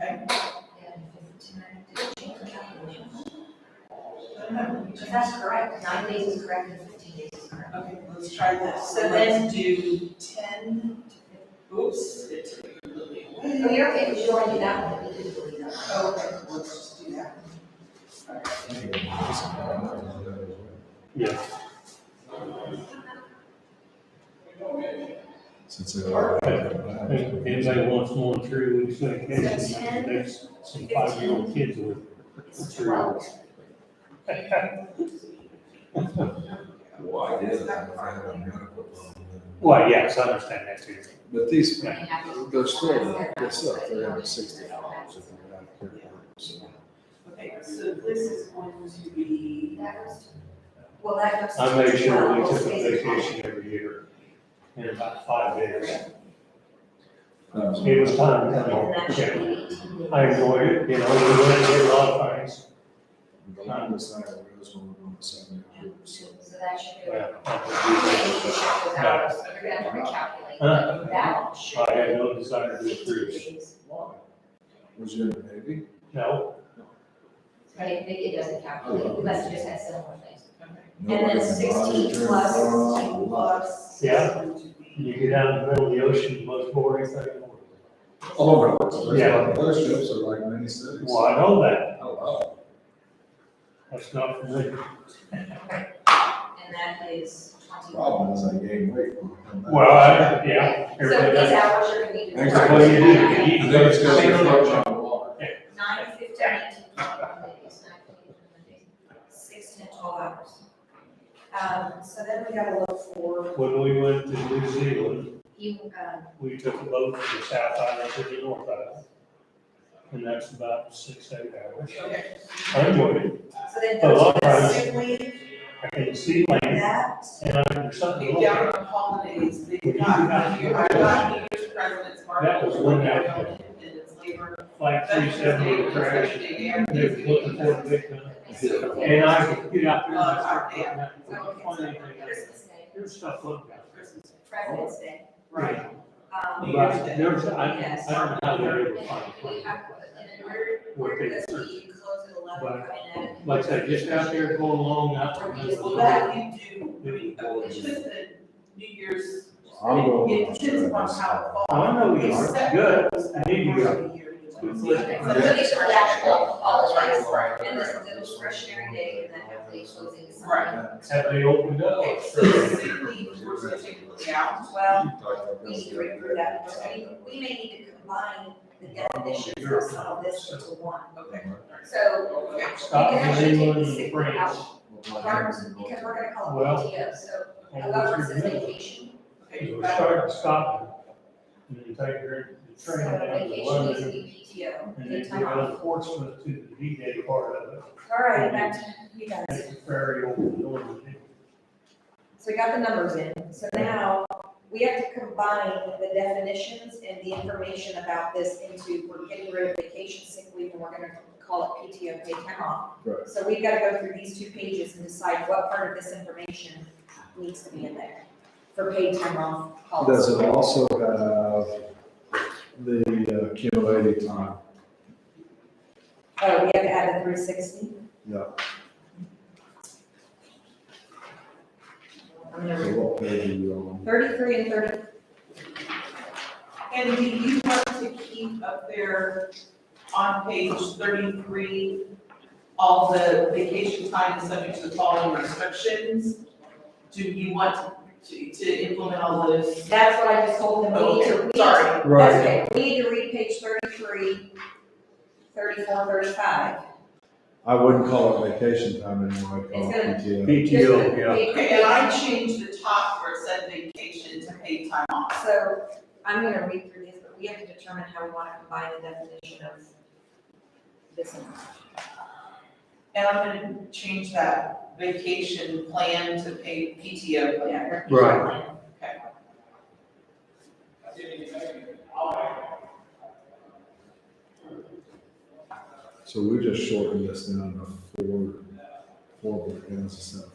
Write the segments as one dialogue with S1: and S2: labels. S1: okay?
S2: If that's correct, nine days is correct and fifteen days is correct.
S1: Okay, let's try this. So then do ten, oops, it took me completely away.
S2: Oh, you're okay, because you only do that one, we did delete that one.
S1: Okay, let's just do that.
S3: Yeah.
S4: Since they are.
S3: If anybody wants more than three weeks
S2: Is that
S3: vacation,
S2: ten?
S3: there's some five-year-old kids with.
S2: It's
S3: Three
S2: twelve.
S3: weeks.
S4: Well, I did, I had a medical problem.
S3: Well, yes, I understand that too.
S4: But these,
S2: I mean, I was-
S4: they're still, they're still, they're under sixty dollars if they're not care workers.
S1: Okay, so this is going to be,
S2: That was- Well, that goes. to
S3: I make sure we
S2: twelve,
S3: took
S2: those
S3: a
S2: days are off.
S3: vacation every year, in about five days.
S4: Um,
S3: It was time,
S2: And
S3: to
S2: that
S3: come
S2: should
S3: home.
S2: be eighteen days.
S3: I enjoyed it, you know, we went and did a lot of things.
S4: The longest I ever was when we were on the seven year old, so.
S2: So that should be.
S3: Well,
S2: Those hours, so You're gonna have to recalculate.
S3: Huh?
S2: That should.
S3: I had no desire to do cruise.
S4: Was you in the Navy?
S3: No,
S2: But it, it doesn't calculate, unless you just had similar things. And
S4: No, I
S2: then
S4: didn't.
S2: sixteen
S4: Volunteer,
S2: plus
S4: uh,
S2: sixteen
S1: plus.
S3: Yeah.
S1: Going to be,
S3: you get out in the middle of the ocean, the most boring thing. in the world.
S4: Oh, no.
S3: Yeah.
S4: Those ships are like mini cities.
S3: Well, I know that,
S4: Hello.
S3: that's not for me.
S2: Okay. And that is twenty.
S4: Problem is I gained weight. when I come back.
S3: Well, I, yeah,
S2: So
S3: everybody
S2: these
S3: does.
S2: hours are gonna be.
S4: Thanks.
S2: divided
S3: What do you do?
S2: by
S3: You eat
S4: I think it's gonna be
S3: Single-
S4: a lot.
S2: Nine, fifteen, eighteen, twenty days, nineteen, sixteen, twelve hours.
S1: um, so then we gotta look for,
S3: When we went to New Zealand,
S2: You, um,
S3: we took a boat from the South Island to the North Island. And that's about six, eight hours.
S1: okay,
S3: I enjoyed it,
S1: so then
S3: A lot of
S1: those
S3: times.
S1: sick leave,
S3: I can see land,
S1: that,
S3: and I there's something.
S1: be down on holidays, they
S3: Would you
S1: got,
S3: not-
S1: you have not New Year's presidents, Martin
S3: That was
S1: Luther
S3: one
S1: King,
S3: out.
S1: Independence, labor.
S3: Like three seventy crash, and they're looking for a victim. And I could get out there and start looking at them, find anything out there.
S2: Christmas Day,
S3: There's stuff looking out there.
S1: Christmas,
S2: President's Day,
S1: Right,
S2: um.
S3: But there's, I, I don't know how they're able to find a
S2: We
S3: plane.
S2: have, and where,
S3: What
S2: where
S3: they
S2: does
S3: search.
S2: the close at eleven come in at?
S3: Like I said, just out there going along, not.
S1: well, that you do, I mean, oh, it's just that New Year's,
S4: I'm going.
S1: it depends upon how it falls.
S3: I know we are, good, I need you.
S2: But these are actual holidays, and this is a discretionary day, and then half day closing is Sunday.
S1: Right.
S3: Have they opened up?
S1: Okay, so the sick leave, we're gonna take a look out, well,
S2: We need to review that, because I mean, we may need to combine the definitions of some of this into one.
S1: okay,
S2: So
S1: okay.
S2: we
S3: Stop
S2: can
S3: in
S2: actually take the
S3: England
S2: sick
S3: and
S2: leave
S3: France.
S2: out, farmers, because we're gonna
S3: Well,
S2: call it PTO, so
S3: and
S2: a
S3: we're
S2: government says
S3: good.
S2: vacation,
S1: Okay,
S3: You
S1: you
S3: were starting to stop. And then take your
S2: so
S3: train down to
S2: vacation needs to
S3: London,
S2: be PTO.
S3: and
S2: good
S3: then
S2: time
S3: go
S2: off.
S3: to Portsmouth to the D-Day part of it.
S2: All right, back to you guys.
S3: It's very open door.
S2: So we got the numbers in, so now we have to combine the definitions and the information about this into, we're getting rid of vacation sick leave and we're gonna call it PTO paid time off.
S4: Right.
S2: So we've gotta go through these two pages and decide what part of this information needs to be in there for paid time off
S4: Does
S2: policy.
S4: it also have the uh, accumulated time?
S2: Oh, we have to add the three sixty?
S4: Yeah.
S2: I'm
S4: So
S2: gonna,
S4: what page are you on?
S2: thirty-three and thirty,
S1: And do you want to keep up there on page thirty-three, all the vacation time is subject to the following restrictions? Do you want to, to implement all those?
S2: that's what I just told them, we need to, we
S1: Okay,
S2: need to
S1: Sorry,
S4: Right.
S2: Okay, we need to read page 33, 34, 35.
S4: I wouldn't call it vacation time anymore, I'd call it
S2: It's
S4: PTO.
S3: PTO, yeah.
S1: okay, and I changed the top where it said vacation to paid time off.
S2: So I'm gonna read through these, but we have to determine how we wanna combine the definition of this and that.
S1: And I'm gonna change that vacation plan to paid PTO plan.
S2: Yeah, we're-
S3: Right.
S4: So we just shortened this down to four, four bookends instead of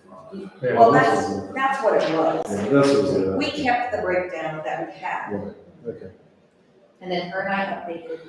S4: five.
S2: Well, that's, that's what it was.
S4: Yeah, this is a.
S2: We kept the breakdown that we had,
S4: Right, okay.
S2: and then her and I updated